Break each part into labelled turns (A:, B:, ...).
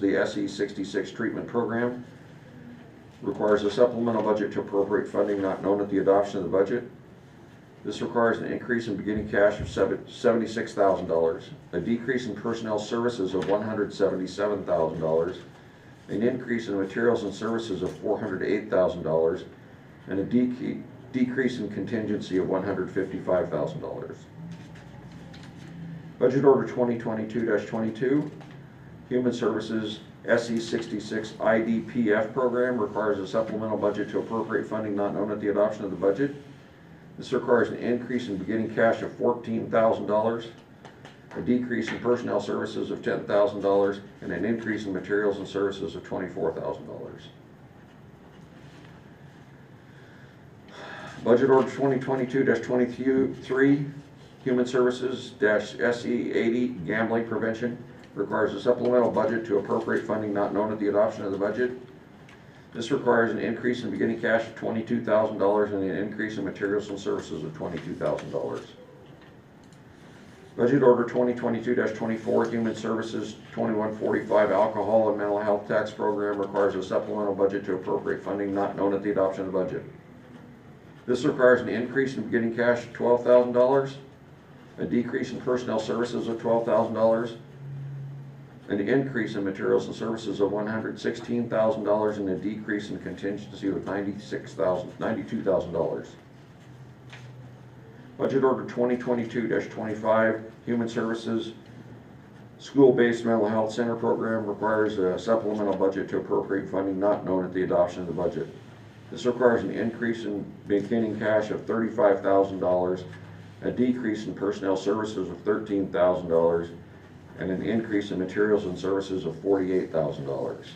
A: The SE sixty-six treatment program requires a supplemental budget to appropriate funding not known at the adoption of the budget. This requires an increase in beginning cash of seventy-six thousand dollars, a decrease in personnel services of one hundred seventy-seven thousand dollars, an increase in materials and services of four hundred eight thousand dollars, and a dec- decrease in contingency of one hundred fifty-five thousand dollars. Budget Order twenty twenty-two twenty-two, Human Services SE sixty-six IDPF program requires a supplemental budget to appropriate funding not known at the adoption of the budget. This requires an increase in beginning cash of fourteen thousand dollars, a decrease in personnel services of ten thousand dollars, and an increase in materials and services of twenty-four thousand dollars. Budget Order twenty twenty-two twenty-three, Human Services dash SE eighty gambling prevention requires a supplemental budget to appropriate funding not known at the adoption of the budget. This requires an increase in beginning cash of twenty-two thousand dollars and an increase in materials and services of twenty-two thousand dollars. Budget Order twenty twenty-two twenty-four, Human Services twenty-one forty-five Alcohol and Mental Health Tax Program requires a supplemental budget to appropriate funding not known at the adoption of the budget. This requires an increase in beginning cash of twelve thousand dollars, a decrease in personnel services of twelve thousand dollars, an increase in materials and services of one hundred sixteen thousand dollars and a decrease in contingency of ninety-six thousand, ninety-two thousand dollars. Budget Order twenty twenty-two twenty-five, Human Services, School-Based Mental Health Center Program requires a supplemental budget to appropriate funding not known at the adoption of the budget. This requires an increase in beginning cash of thirty-five thousand dollars, a decrease in personnel services of thirteen thousand dollars, and an increase in materials and services of forty-eight thousand dollars.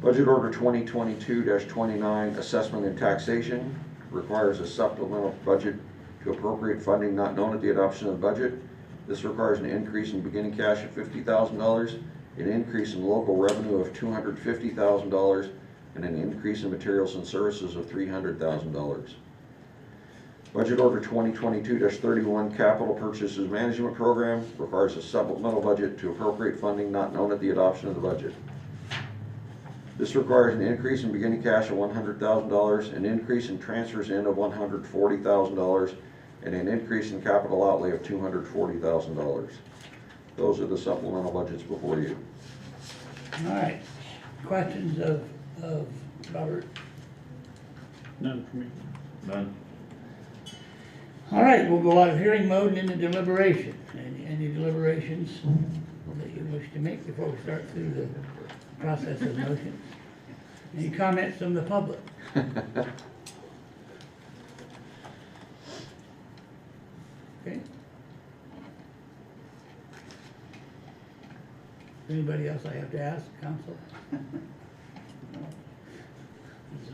A: Budget Order twenty twenty-two twenty-nine, Assessment and Taxation, requires a supplemental budget to appropriate funding not known at the adoption of the budget. This requires an increase in beginning cash of fifty thousand dollars, an increase in local revenue of two hundred fifty thousand dollars, and an increase in materials and services of three hundred thousand dollars. Budget Order 2022-31 Capital Purchases Management Program requires a supplemental budget to appropriate funding not known at the adoption of the budget. This requires an increase in beginning cash of $100,000, an increase in transfers in of $140,000, and an increase in capital outlay of $240,000. Those are the supplemental budgets before you.
B: All right, questions of, of Robert?
C: None for me. None.
B: All right, we'll go out of hearing mode and into deliberation. Any, any deliberations that you wish to make before we start through the process of motions? Any comments from the public? Okay. Anybody else I have to ask, counsel? There's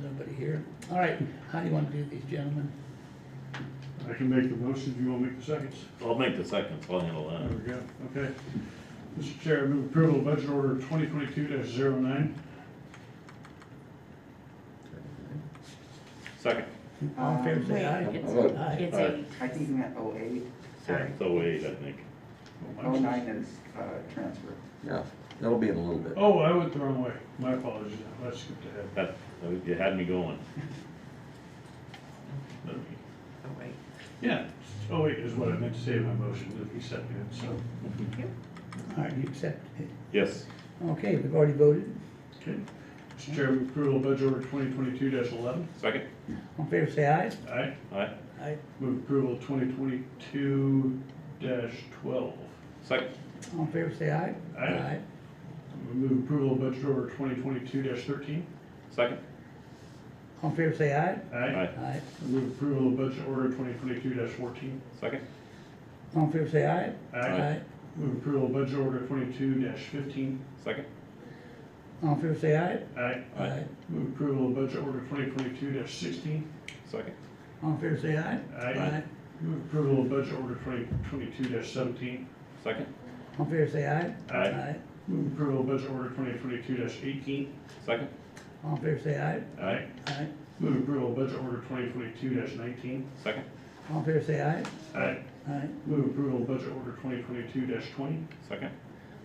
B: nobody here. All right, how do you want to do these, gentlemen?
D: I can make the motion, if you want to make the seconds?
C: I'll make the second, I'll handle
D: There
C: that.
D: we go, okay. Mr. Chair, I move approval of budget order twenty twenty-two 9
C: Second,
B: All in favor, say
E: Um,
B: aye.
A: it's-
B: Aye.
E: It's
C: Aye.
E: a,
F: I think you meant oh eight,
C: yeah,
E: sorry,
C: so wait, I think.
F: oh nine is, uh, transfer.
A: Yeah, that'll be in a little bit.
D: Oh, I went the wrong way, my apologies, I skipped ahead.
C: That, you had me going. Let me-
E: oh, wait,
D: Yeah, oh eight is what I meant to say in my motion, that he seconded, so.
E: thank you.
B: All right, you accept it.
C: Yes,
B: Okay, we've already voted.
D: Okay. Mr. Chair, I move approval of budget order twenty twenty-two eleven.
C: second,
B: All in favor, say aye.
D: Aye.
C: aye,
B: Aye.
D: Move approval of twenty twenty-two twelve.
C: second,
B: All in favor, say aye.
D: Aye. Move approval of budget order twenty twenty-two thirteen.
C: second,
B: All in favor, say aye.
C: aye,
B: Aye.
D: Move approval of budget order twenty twenty-two fourteen.
C: second,
B: All in favor, say aye.
C: Aye.
D: Move approval of budget order twenty-two fifteen.
C: second,
B: All in favor, say aye.
D: Aye.
C: Aye.
D: Move approval of budget order twenty twenty-two sixteen.
C: second,
B: All in favor, say aye.
D: Aye. Move approval of budget order twenty twenty-two seventeen.
C: second,
B: All in favor, say aye.
D: Aye. Move approval of budget order twenty twenty-two eighteen.
C: second,
B: All in favor, say aye.
C: aye,
B: Aye.
D: Move approval of budget order twenty twenty-two nineteen.
C: second,
B: All in favor, say aye.
D: Aye.
B: Aye.
D: Move approval of budget order twenty twenty-two twenty.
C: second,